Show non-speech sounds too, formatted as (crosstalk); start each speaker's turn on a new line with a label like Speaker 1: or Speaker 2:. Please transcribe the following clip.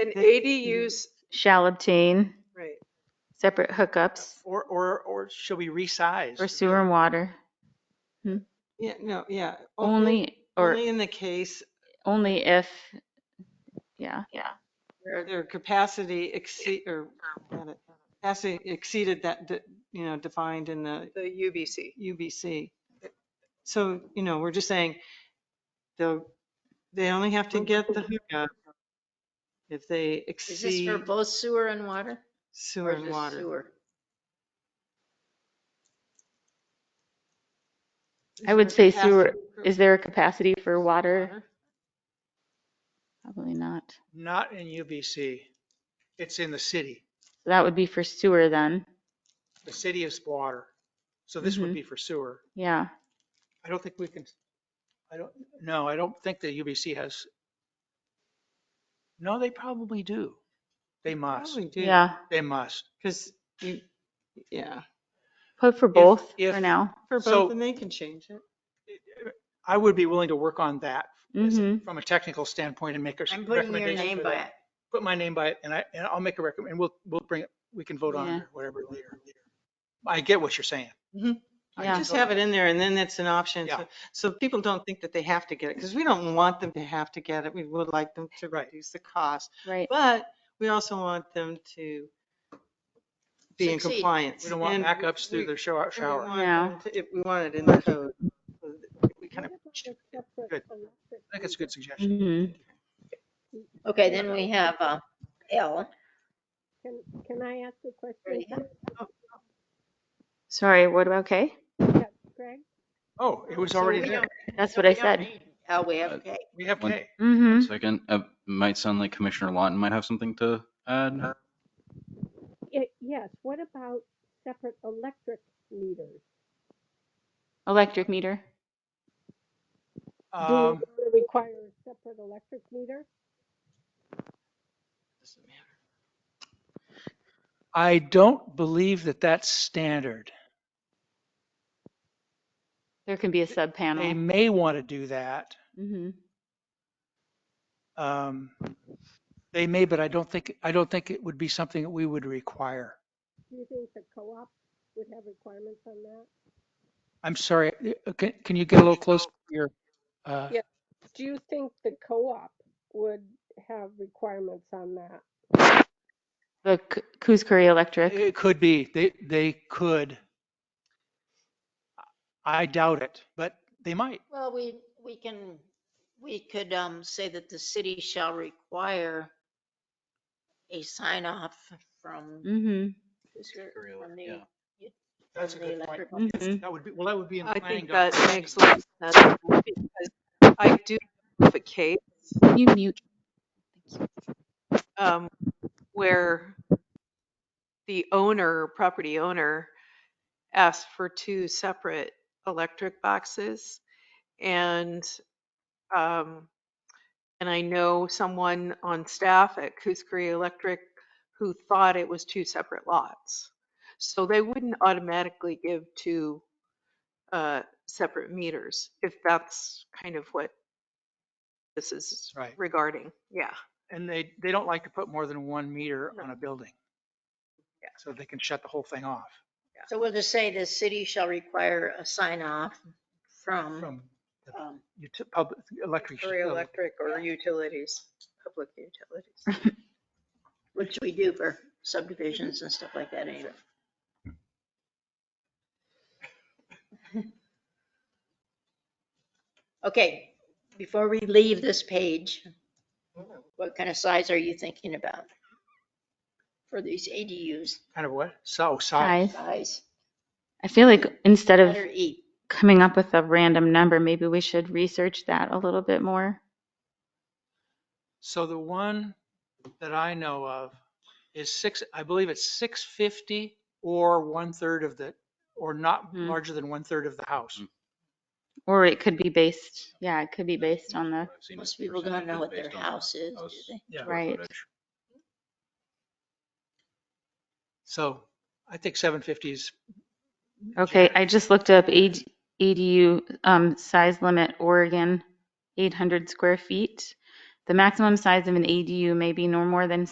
Speaker 1: And ADUs,
Speaker 2: shall obtain
Speaker 1: right,
Speaker 2: separate hookups
Speaker 3: Or, or, or should we resize?
Speaker 2: for sewer and water
Speaker 1: yeah, no, yeah.
Speaker 2: only, or
Speaker 1: Only in the case
Speaker 2: only if, yeah. Yeah.
Speaker 1: where their capacity exceed, or, got it, capacity exceeded that, de- you know, defined in the
Speaker 4: the UBC.
Speaker 1: UBC. So, you know, we're just saying, they'll, they only have to get the hookup if they
Speaker 4: Is this for
Speaker 1: exceed
Speaker 4: both sewer and water?
Speaker 1: sewer
Speaker 4: Or
Speaker 1: and
Speaker 4: just
Speaker 1: water.
Speaker 4: sewer?
Speaker 2: I would say sewer, is there a capacity for water?
Speaker 1: Water?
Speaker 2: Probably not.
Speaker 3: Not in UBC. It's in the city.
Speaker 2: So That would be for sewer then.
Speaker 3: The city is water. So this would
Speaker 2: Mhm.
Speaker 3: be for sewer.
Speaker 2: Yeah.
Speaker 3: I don't think we can, I don't, no, I don't think the UBC has. No, they probably do. They must,
Speaker 1: Probably do.
Speaker 2: Yeah.
Speaker 3: they must.
Speaker 1: Because you, yeah,
Speaker 2: Put for both
Speaker 3: if-
Speaker 2: for now.
Speaker 1: for
Speaker 3: So-
Speaker 1: both, and they can change it.
Speaker 3: I would be willing to work on that as-
Speaker 2: Mhm.
Speaker 3: from a technical standpoint and make a s-
Speaker 4: I'm
Speaker 3: recommendation.
Speaker 4: putting your name
Speaker 3: for
Speaker 4: by
Speaker 3: that.
Speaker 4: it.
Speaker 3: Put my name by it and I, and I'll make a recommend, and we'll, we'll bring it, we can vote on
Speaker 2: Yeah.
Speaker 3: it, or whatever later. I get what you're saying. I
Speaker 2: Yeah.
Speaker 1: Just have it in there, and then it's an option.
Speaker 3: Yeah.
Speaker 1: so- So people don't think that they have to get it, because we don't want them to have to get it. We would like them to
Speaker 3: Right.
Speaker 1: reduce the cost.
Speaker 2: Right.
Speaker 1: But we also want them to be in
Speaker 4: Succeed.
Speaker 1: compliance.
Speaker 3: We don't want
Speaker 1: And
Speaker 3: backups through
Speaker 1: we-
Speaker 3: the shower,
Speaker 1: we
Speaker 3: shower.
Speaker 1: want
Speaker 2: Yeah.
Speaker 1: them to- if We want it in the code. so that We kind of,
Speaker 3: I think it's a good suggestion.
Speaker 2: Mhm.
Speaker 4: Okay, then we have uh, L.
Speaker 5: Can, can I ask a question,
Speaker 4: Ready, huh?
Speaker 2: Sorry, what about K?
Speaker 5: Greg?
Speaker 3: Oh, it was
Speaker 4: So
Speaker 3: already
Speaker 4: we
Speaker 3: there.
Speaker 4: don't-
Speaker 2: That's
Speaker 4: so
Speaker 2: what I
Speaker 4: we don't
Speaker 2: said.
Speaker 4: need L, we have K.
Speaker 3: We have
Speaker 6: One-
Speaker 3: K.
Speaker 2: hmm
Speaker 6: Second, uh, might sound like Commissioner Lawton might have something to add.
Speaker 5: Ye- Yes, what about separate electric meters?
Speaker 2: Electric meter.
Speaker 5: Do
Speaker 3: Um,
Speaker 5: we require a separate electric meter?
Speaker 3: I don't believe that that's standard.
Speaker 2: There can be a sub
Speaker 3: They
Speaker 2: panel.
Speaker 3: may want to do that.
Speaker 2: hmm
Speaker 3: Um, They may, but I don't think, I don't think it would be something that we would require.
Speaker 5: Do you think the co-op would have requirements on that?
Speaker 3: I'm sorry, uh, can, can you get a little closer to your, uh,
Speaker 5: Yeah. Do you think the co-op would have requirements on that?
Speaker 2: The K- Coos Curry Electric.
Speaker 3: it could be, they, they could. I doubt it, but they might.
Speaker 4: Well, we, we can, we could um, say that the city shall require a sign off from
Speaker 2: hmm
Speaker 4: from the-
Speaker 6: Yeah.
Speaker 3: That's a
Speaker 4: from the
Speaker 3: good point.
Speaker 4: electrical
Speaker 7: Mm-hmm.
Speaker 2: hmm
Speaker 3: That would be, well, that would be in
Speaker 7: I
Speaker 3: planning.
Speaker 7: think that
Speaker 3: doc-
Speaker 7: makes a lot of
Speaker 3: (laughs)
Speaker 7: sense because I do have a case
Speaker 2: Can Mm-hmm. you mute?
Speaker 7: um, where the owner, property owner, asked for two separate electric boxes. And, um, and I know someone on staff at Kuskari Electric who thought it was two separate lots. So they wouldn't automatically give two, uh, separate meters if that's kind of what this is
Speaker 3: Right.
Speaker 7: regarding. Yeah.
Speaker 3: And they, they don't like to put more than one meter
Speaker 7: No.
Speaker 3: on a building.
Speaker 7: Yeah.
Speaker 3: So they can shut the whole thing off
Speaker 4: So we'll just say the city shall require a sign off
Speaker 7: Mm-hmm.
Speaker 4: from,
Speaker 3: from
Speaker 4: um,
Speaker 3: uti- public, electric.
Speaker 7: For
Speaker 3: uh,
Speaker 7: electric or utilities, public utilities.
Speaker 4: which we do for subdivisions and stuff like that anyway. Okay, before we leave this page, what kind of size are you thinking about? For these ADUs,
Speaker 3: Kind of what? So, size.
Speaker 2: Size.
Speaker 4: size,
Speaker 2: I feel like instead of
Speaker 4: letter E.
Speaker 2: coming up with a random number, maybe we should research that a little bit more.
Speaker 3: So the one that I know of is six, I believe it's six fifty or one third of the, or not
Speaker 7: Mm-hmm.
Speaker 2: Mhm.
Speaker 3: larger than one third of the house.
Speaker 6: Mm.
Speaker 2: Or it could be based, yeah, it could be based on the,
Speaker 6: I've seen
Speaker 4: Most
Speaker 6: this
Speaker 4: people don't know
Speaker 6: percentages
Speaker 4: what their
Speaker 6: based on
Speaker 4: house is, do
Speaker 6: house
Speaker 4: they?
Speaker 3: Yeah.
Speaker 2: Right.
Speaker 6: footage.
Speaker 3: So I think seven fifty is.
Speaker 2: okay, I just looked up AD- ADU um, size limit Oregon, 800 square feet. The maximum size of an ADU may be no more than